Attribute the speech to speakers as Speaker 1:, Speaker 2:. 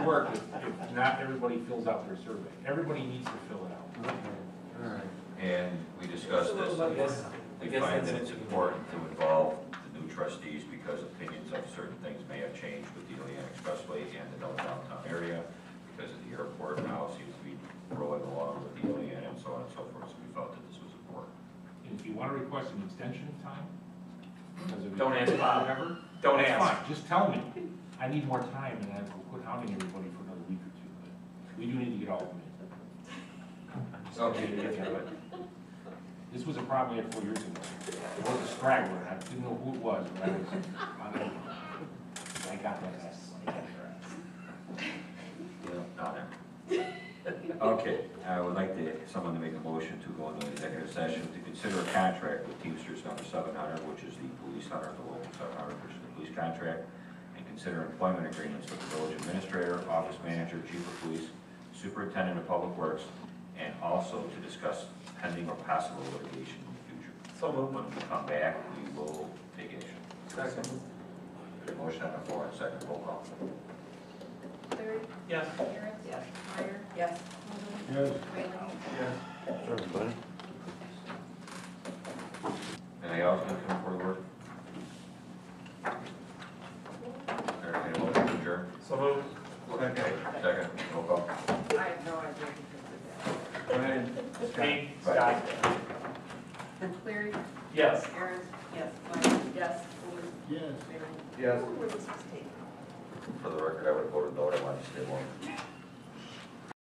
Speaker 1: work if, if not everybody fills out their survey. Everybody needs to fill it out.
Speaker 2: And we discussed this,
Speaker 3: I guess, I
Speaker 2: we
Speaker 3: guess
Speaker 2: find
Speaker 3: that's
Speaker 2: that
Speaker 3: an
Speaker 2: it's
Speaker 3: issue.
Speaker 2: important to involve the new trustees because opinions of certain things may have changed with the Ilion Expressway and the downtown area because of the airport now seems to be rolling along with the Ilion and so on and so forth, so we felt that this was important.
Speaker 1: And if you wanna request an extension of time, because of.
Speaker 2: Don't ask Bob.
Speaker 1: Whatever.
Speaker 2: Don't
Speaker 1: that's
Speaker 2: ask.
Speaker 1: fine. Just tell me. I need more time and I will quit hounding everybody for another week or two, but we do need to get all of them in.
Speaker 2: Okay.
Speaker 1: This was a problem I had four years ago. It was a straggler, and I didn't know who it was, but I was, I don't know. I got that ass.
Speaker 2: Yeah, not him. Okay, I would like to, someone to make a motion to go into executive session to consider a contract with Teamsters number seven hundred, which is the police hunter, the local seven hundred, which is the police contract, and consider employment agreements with the village administrator, office manager, chief of police, superintendent of public works, and also to discuss pending or possible litigation in the future. So When we come back, we will take action. Second. Motion on the floor, and second, roll call.
Speaker 4: Cleary?
Speaker 3: Yes.
Speaker 4: Aaron? Yes. Meyer? Yes.
Speaker 1: Yes.
Speaker 4: Whalen?
Speaker 2: Anything else to come forward? with? Entertained a motion to adjourn?
Speaker 3: So moved.
Speaker 2: Okay. Second, roll call.
Speaker 4: I have no idea who
Speaker 2: Brian.
Speaker 3: Pete, Scott.
Speaker 4: this is. Cleary?
Speaker 3: Yes.
Speaker 4: Aaron? Yes. Meyer? Yes. Whalen?
Speaker 1: Yes.
Speaker 4: Whalen?
Speaker 2: Yes.
Speaker 4: Who was this taken?
Speaker 2: For the record, I would have voted no, I wanted to stay long.